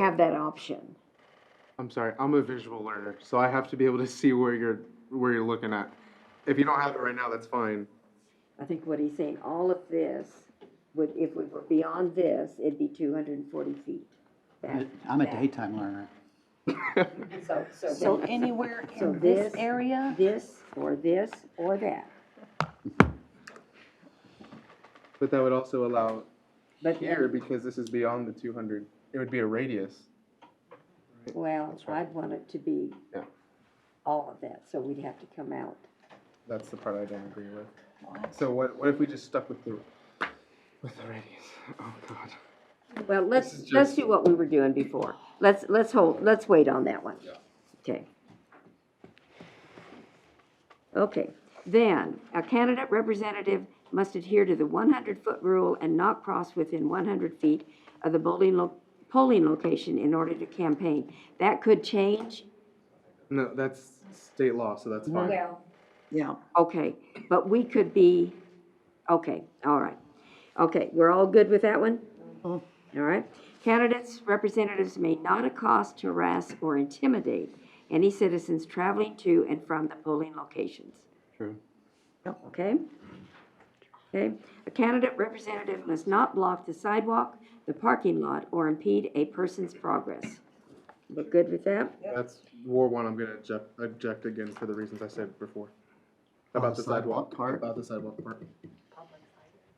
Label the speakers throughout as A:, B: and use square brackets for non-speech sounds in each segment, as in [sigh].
A: have that option.
B: I'm sorry, I'm a visual learner, so I have to be able to see where you're, where you're looking at. If you don't have it right now, that's fine.
A: I think what he's saying, all of this would, if we were beyond this, it'd be two hundred and forty feet. back.
C: I'm a daytime learner.
A: So,
D: So
A: so
D: anywhere
A: So
D: in this
A: this-
D: area,
A: this, or this, or that,
B: But that would also allow
A: but.
B: here, because this is beyond the two hundred, it would be a radius.
A: Well,
B: That's right.
A: I'd want it to be
B: Yeah.
A: all of that, so we'd have to come out.
B: That's the part I don't agree with. So what, what if we just stuck with the, with the radius? Oh, God.
A: Well,
B: is
A: let's,
B: just-
A: let's do what we were doing before. Let's, let's hold, let's wait on that one. Okay. Okay, then, a candidate representative must adhere to the one hundred foot rule and not cross within one hundred feet of the polling, lo- polling location in order to campaign. That could change.
B: No, that's state law, so that's fine.
A: Well,
C: Yeah.
A: Okay, but we could be, okay, all right. Okay, we're all good with that one? All right. Candidates, representatives may not accost, harass, or intimidate any citizens traveling to and from the polling locations.
B: True.
A: Okay? Okay, a candidate representative must not block the sidewalk, the parking lot, or impede a person's progress. We're good with that?
B: That's war one. I'm gonna object, object again for the reasons I said before. About the sidewalk part. About the sidewalk part.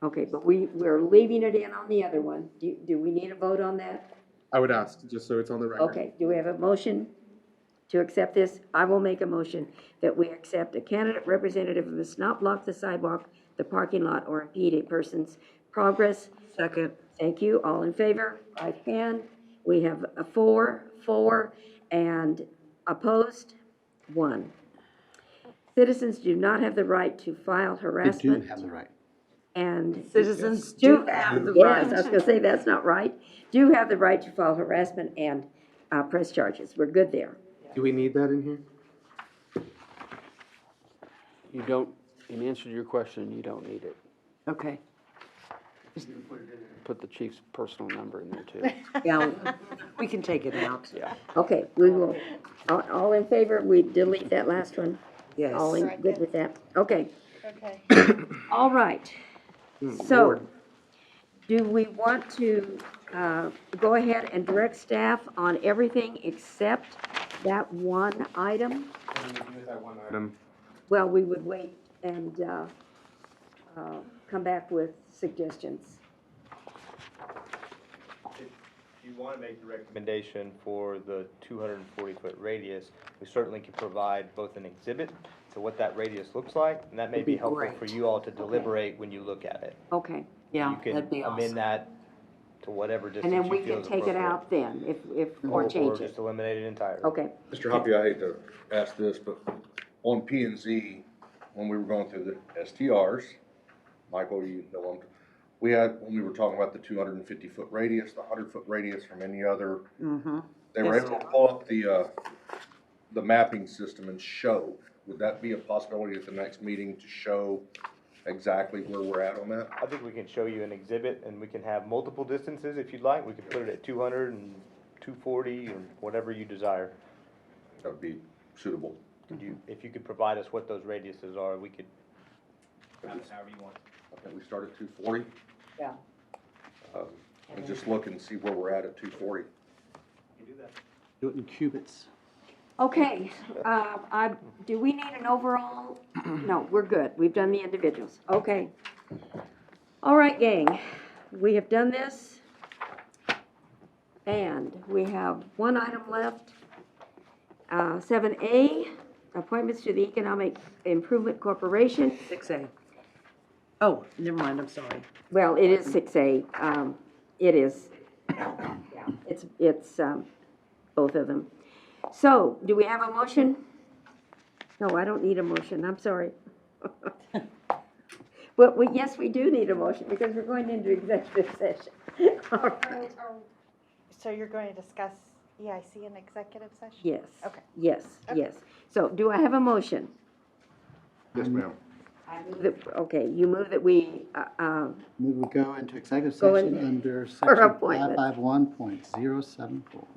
A: Okay, but we, we're leaving it in on the other one. Do, do we need a vote on that?
B: I would ask, just so it's on the record.
A: Okay, do we have a motion to accept this? I will make a motion that we accept a candidate representative who must not block the sidewalk, the parking lot, or impede a person's progress. Second. Thank you, all in favor, right hand. We have a four, four, and opposed, one. Citizens do not have the right to file
C: I do
A: harassment
C: have the right.
A: and.
E: Citizens
A: Do
E: do
A: have the
E: right.
A: right, I was gonna say, that's not right. Do have the right to file harassment and, uh, press charges. We're good there.
B: Do we need that in here?
F: You don't, in answer to your question, you don't need it.
E: Okay.
F: Put the chief's personal number in there too.
E: Yeah, we can take it out. Yeah.
A: Okay, we will, all, all in favor, we delete that last one?
E: Yes.
A: All in, good with that? Okay,
D: okay.
A: all right.
E: Hmm,
A: So, do we want to, uh, go ahead and direct staff on everything except that one item?
B: Item.
A: Well, we would wait and, uh, uh, come back with suggestions.
G: If you want to make the recommendation for the 240-foot radius, we certainly can provide both an exhibit to what that radius looks like, and that may be helpful for
E: great.
G: you all to deliberate when you look at it.
A: Okay.
E: Yeah, that'd be
G: You can amend
E: awesome.
G: that to whatever
A: And
G: distance
A: then we
G: you feel
A: can
G: is
A: take it
G: appropriate.
A: out then, if, if, or change
G: Or
A: it.
G: just eliminate it entirely.
A: Okay,
H: Mr. Hoppy, I hate to ask this, but on P and Z, when we were going through the STRs, Michael, you know, I'm- we had, when we were talking about the two hundred and fifty foot radius, the hundred foot radius from any other,
E: Mm-hmm.
H: they were able to pull up the, uh, the mapping system and show. Would that be a possibility at the next meeting to show exactly where we're at on that?
G: I think we can show you an exhibit, and we can have multiple distances if you'd like. We could put it at 200 and 240, or whatever you desire.
H: That'd be suitable.
G: Could you, if you could provide us what those radiuses are, we could have it however you want.
H: I think we start at two forty.
A: Yeah.
H: Um, and just look and see where we're at at two forty.
C: Do it in cubits.
A: okay, uh, I, do we need an overall? No, we're good, we've done the individuals, okay. All right, gang, we have done this. And we have one item left. Uh, seven A, appointments to the Economic Improvement Corporation.
E: Six A. Oh, never mind, I'm sorry.
A: Well, it is six A, um, it is. It's, it's, um, both of them. So, do we have a motion? No, I don't need a motion, I'm sorry. [laughs] But we, yes, we do need a motion because we're going into executive [laughs] session. All right.
D: So you're going to discuss EIC in executive session?
A: Yes.
D: Okay.
A: Yes, yes. So do I have a motion?
H: Yes, ma'am.
A: That- Okay, you move that we, uh, uh,
C: We will go into executive
A: Go
C: session
A: in-
C: under section
A: [laughs] for appointment.
C: five five one point zero seven four.